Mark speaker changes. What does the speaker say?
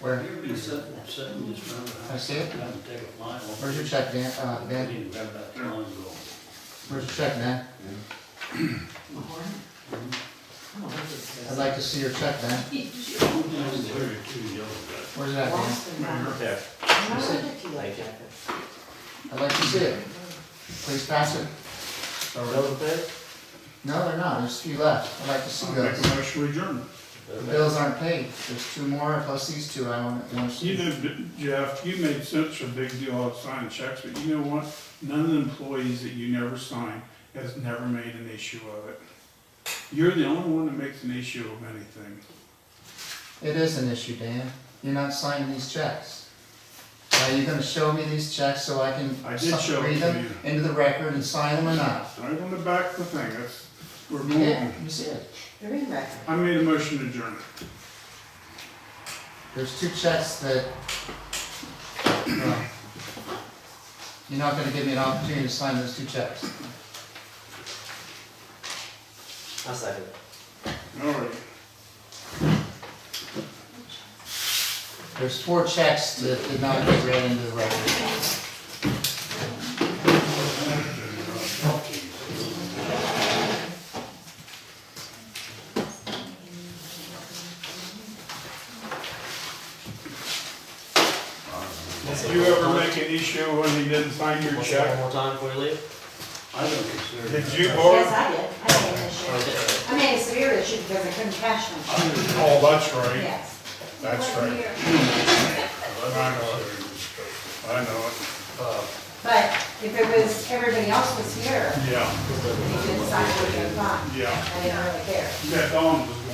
Speaker 1: Where?
Speaker 2: You're be sitting, sitting just around the house.
Speaker 1: I see it.
Speaker 2: I'm gonna take a line off.
Speaker 1: Where's your check, Dan, uh,
Speaker 2: I
Speaker 1: Dan,
Speaker 2: need to grab that line and go.
Speaker 1: where's your check, man? I'd like to see your check, man.
Speaker 2: Those are your two yellow guys.
Speaker 1: Where's that, man?
Speaker 3: Lost and found.
Speaker 4: Yeah.
Speaker 3: I'm not gonna let you like that.
Speaker 1: I'd like to see it. Please pass it.
Speaker 4: Those bid?
Speaker 1: No, they're not, there's a few left, I'd like to see
Speaker 5: Make
Speaker 1: those.
Speaker 5: a motion to adjourn.
Speaker 1: The bills aren't paid, there's two more, plus these two I want, want to
Speaker 5: You
Speaker 1: see.
Speaker 5: know, Jeff, you made such a big deal out of signing checks, but you know what? None of the employees that you never signed has never made an issue of it. You're the only one that makes an issue of anything.
Speaker 1: It is an issue, Dan, you're not signing these checks. Are you gonna show me these checks so I can
Speaker 5: I did show
Speaker 1: read
Speaker 5: them to
Speaker 1: them into the record and sign them or not?
Speaker 5: Right on the back of the thing, that's, we're moving
Speaker 1: Yeah,
Speaker 5: on.
Speaker 1: let me see it.
Speaker 3: They're in back.
Speaker 5: I made a motion to adjourn.
Speaker 1: There's two checks that, uh, you're not gonna give me an opportunity to sign those two checks.
Speaker 4: I'll second it.
Speaker 5: All right.
Speaker 1: There's four checks that did not get read into the record.
Speaker 5: If you ever make an issue when you didn't sign your
Speaker 4: Want to say it One
Speaker 5: check,
Speaker 4: more time before you leave?
Speaker 2: I don't consider.
Speaker 5: did
Speaker 2: that.
Speaker 5: you
Speaker 3: Yes,
Speaker 5: borrow?
Speaker 3: I did. I made an issue. I made a severe issue because I couldn't cash them.
Speaker 2: I don't
Speaker 5: Oh,
Speaker 2: know.
Speaker 5: that's right.
Speaker 3: Yes.
Speaker 5: That's right. I know it. I know it.
Speaker 3: But if it was, everybody else was here,
Speaker 5: Yeah,
Speaker 3: they could decide what they thought.
Speaker 5: yeah.
Speaker 3: I didn't really care.
Speaker 5: That Dawn was